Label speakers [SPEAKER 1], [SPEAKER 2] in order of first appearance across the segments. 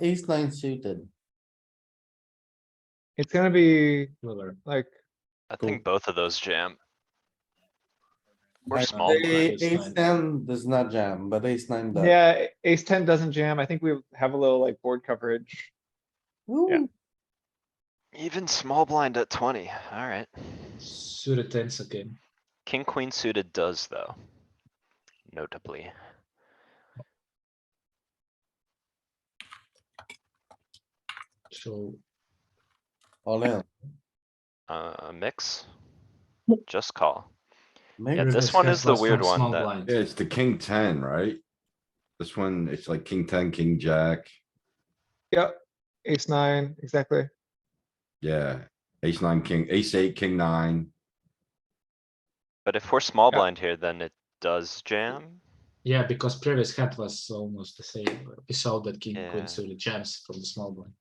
[SPEAKER 1] ace nine suited.
[SPEAKER 2] It's gonna be similar, like,
[SPEAKER 3] I
[SPEAKER 1] Cool.
[SPEAKER 3] think both of those jam. We're
[SPEAKER 1] Like,
[SPEAKER 3] small.
[SPEAKER 1] a-
[SPEAKER 3] blind.
[SPEAKER 4] ace
[SPEAKER 1] Ace
[SPEAKER 4] nine.
[SPEAKER 1] ten does not jam, but ace nine does.
[SPEAKER 2] yeah, ace ten doesn't jam. I think we have a little like board coverage.
[SPEAKER 1] Ooh,
[SPEAKER 3] Even small blind at twenty, alright.
[SPEAKER 4] Suited tens again.
[SPEAKER 3] King, queen suited does though. Notably.
[SPEAKER 4] So
[SPEAKER 1] All in.
[SPEAKER 3] Uh, a mix? Just call. Yeah,
[SPEAKER 1] Maybe
[SPEAKER 4] Rivers
[SPEAKER 3] this one
[SPEAKER 4] has
[SPEAKER 3] is the
[SPEAKER 4] lost
[SPEAKER 3] weird
[SPEAKER 4] some
[SPEAKER 3] one
[SPEAKER 4] small
[SPEAKER 3] that-
[SPEAKER 4] blind.
[SPEAKER 5] Yeah, it's the king ten, right? This one, it's like king ten, king jack,
[SPEAKER 2] Yep, ace nine, exactly.
[SPEAKER 5] yeah, ace nine, king, ace eight, king nine.
[SPEAKER 3] But if we're small
[SPEAKER 2] Yeah.
[SPEAKER 3] blind here, then it does jam.
[SPEAKER 4] Yeah, because previous hand was almost the same. We saw that king
[SPEAKER 3] Yeah.
[SPEAKER 4] queen suited jams from the small blind.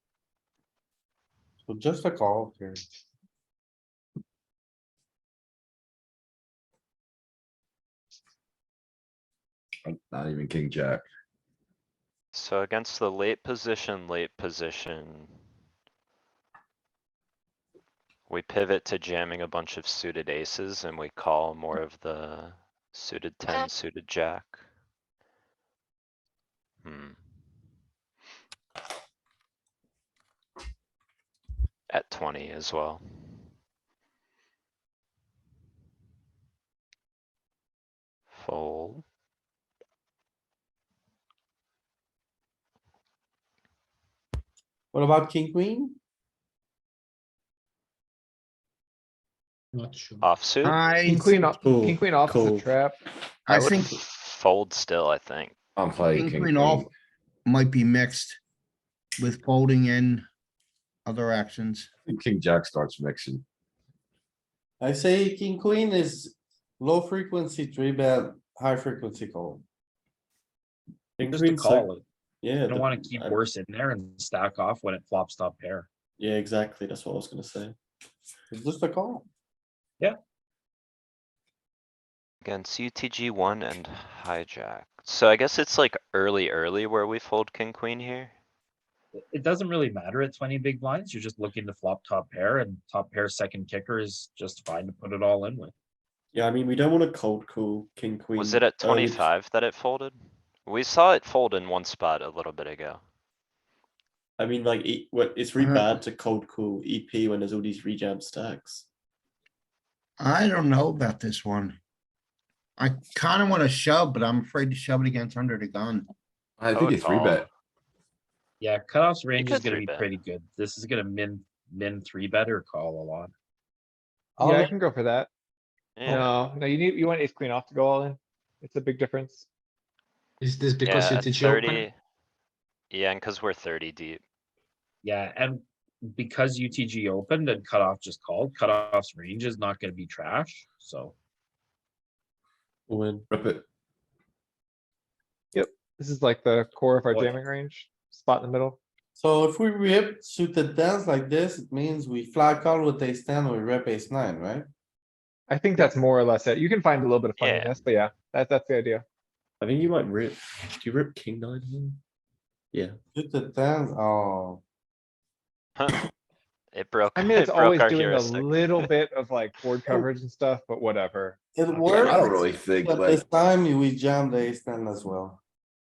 [SPEAKER 1] So just a call here.
[SPEAKER 5] Oh, Not even king jack.
[SPEAKER 3] So against the late position, late position. We pivot to jamming a bunch of suited aces and we call more of the suited ten, suited jack. Hmm. At twenty as well. Fold.
[SPEAKER 1] What about king, queen?
[SPEAKER 4] Not sure.
[SPEAKER 3] Uh, Offsuit,
[SPEAKER 2] King queen off,
[SPEAKER 6] cool,
[SPEAKER 2] king queen off is a
[SPEAKER 6] cool.
[SPEAKER 2] trap.
[SPEAKER 3] I
[SPEAKER 7] Uh, I
[SPEAKER 3] would
[SPEAKER 7] think
[SPEAKER 3] fold still, I think.
[SPEAKER 5] I'm playing
[SPEAKER 7] King
[SPEAKER 5] king
[SPEAKER 7] queen
[SPEAKER 5] queen.
[SPEAKER 7] off might be mixed with folding in other actions.
[SPEAKER 5] I think King jack starts mixing.
[SPEAKER 1] I say king, queen is low frequency three bet, high frequency call. King,
[SPEAKER 8] Just to
[SPEAKER 1] queen, sec-
[SPEAKER 8] call it.
[SPEAKER 1] Yeah.
[SPEAKER 8] I don't
[SPEAKER 1] the-
[SPEAKER 8] wanna keep
[SPEAKER 1] I-
[SPEAKER 8] worse in there and stack off when it flops top pair.
[SPEAKER 1] Yeah, exactly. That's what I was gonna say. It's just a call.
[SPEAKER 3] Against UTG one and hijack. So I guess it's like early, early where we fold king, queen here.
[SPEAKER 8] It- It doesn't really matter at twenty big blinds, you're just looking to flop top pair and top pair second kicker is just fine to put it all in with.
[SPEAKER 9] Yeah, I mean, we don't want to cold call king queen.
[SPEAKER 3] Was it at
[SPEAKER 9] early.
[SPEAKER 3] twenty-five that it folded? We saw it fold in one spot a little bit ago.
[SPEAKER 9] I mean, like, e- what- it's really
[SPEAKER 7] Uh,
[SPEAKER 9] bad to cold call EP when there's all these rejam stacks.
[SPEAKER 7] I don't know about this one. I kind of want to shove, but I'm afraid to shove it against under the gun.
[SPEAKER 5] I think
[SPEAKER 3] would
[SPEAKER 5] it's three bet.
[SPEAKER 8] Yeah, cutoff's range is
[SPEAKER 3] could
[SPEAKER 8] gonna
[SPEAKER 3] three
[SPEAKER 8] be
[SPEAKER 3] bet.
[SPEAKER 8] pretty good. This is gonna min, min three better call a lot.
[SPEAKER 2] Yeah, I
[SPEAKER 1] All,
[SPEAKER 2] can go for that.
[SPEAKER 3] Oh. Yeah,
[SPEAKER 2] No, no, you need, you want ace queen off to go all in. It's a big difference.
[SPEAKER 4] Is this because
[SPEAKER 3] yeah,
[SPEAKER 4] it is open?
[SPEAKER 3] thirty. Yeah, and cuz we're thirty deep.
[SPEAKER 8] Yeah, and because UTG opened and cutoff just called, cutoff's range is not gonna be trash, so.
[SPEAKER 9] When
[SPEAKER 5] Rip it.
[SPEAKER 2] This is like the core of our
[SPEAKER 8] Oh, yeah.
[SPEAKER 2] jamming range, spot in the middle.
[SPEAKER 1] so if we rip suited tens like this, it means we flat call with ace ten, we rip ace nine, right?
[SPEAKER 2] I think that's more or less it. You can find a little bit of fun in
[SPEAKER 3] Yeah.
[SPEAKER 2] this, but yeah, that's, that's the idea.
[SPEAKER 9] I think you might rip. Do you rip king nine? here? Yeah.
[SPEAKER 1] Suited tens, oh,
[SPEAKER 3] Huh. It broke,
[SPEAKER 2] I mean,
[SPEAKER 3] it
[SPEAKER 2] it's always
[SPEAKER 3] broke our
[SPEAKER 2] doing a
[SPEAKER 3] heuristic.
[SPEAKER 2] little bit of like board coverage and stuff, but whatever.
[SPEAKER 1] it
[SPEAKER 5] I don't
[SPEAKER 1] worked,
[SPEAKER 5] really think,
[SPEAKER 1] but
[SPEAKER 5] like,
[SPEAKER 1] this time we jammed ace ten as well.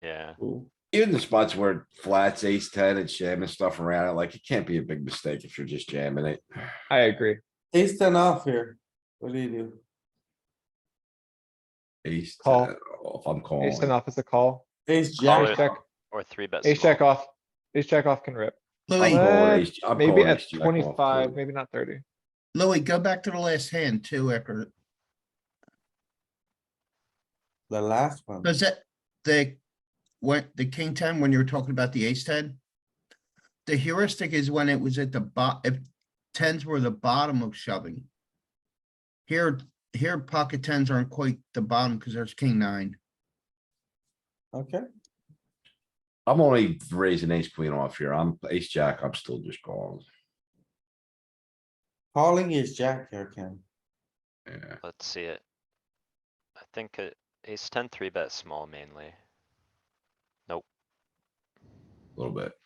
[SPEAKER 3] Yeah,
[SPEAKER 9] Cool.
[SPEAKER 5] even the spots where it flats ace ten and jamming stuff around it, like, it can't be a big mistake if you're just jamming it.
[SPEAKER 2] I agree.
[SPEAKER 1] Ace ten off here. What do you do?
[SPEAKER 5] Ace,
[SPEAKER 2] Call.
[SPEAKER 5] 10 off, I'm
[SPEAKER 2] Ace ten
[SPEAKER 5] calling.
[SPEAKER 2] off is a call.
[SPEAKER 1] Ace
[SPEAKER 3] Call
[SPEAKER 1] jack,
[SPEAKER 2] Ace
[SPEAKER 3] it.
[SPEAKER 2] check,
[SPEAKER 3] or three bet
[SPEAKER 2] ace check
[SPEAKER 3] small.
[SPEAKER 2] off, ace check off can rip.
[SPEAKER 5] I'm
[SPEAKER 7] Louis,
[SPEAKER 5] calling ace- I'm
[SPEAKER 2] Maybe
[SPEAKER 5] calling
[SPEAKER 2] at
[SPEAKER 5] ace jack off, too.
[SPEAKER 2] twenty-five, maybe not thirty.
[SPEAKER 7] Louis, go back to the last hand too after,
[SPEAKER 1] the last one.
[SPEAKER 7] does that, the, what, the king ten, when you were talking about the ace ten? The heuristic is when it was at the bot, if tens were the bottom of shoving. Here, here pocket tens aren't quite the bottom because there's king nine.
[SPEAKER 1] Okay,
[SPEAKER 5] I'm only raising ace queen off here. I'm ace jack, I'm still just calling.
[SPEAKER 1] calling is jack here, Ken.
[SPEAKER 5] Yeah,
[SPEAKER 3] Let's see it. I think uh, it, ace ten, three bet small mainly.
[SPEAKER 5] a little bit.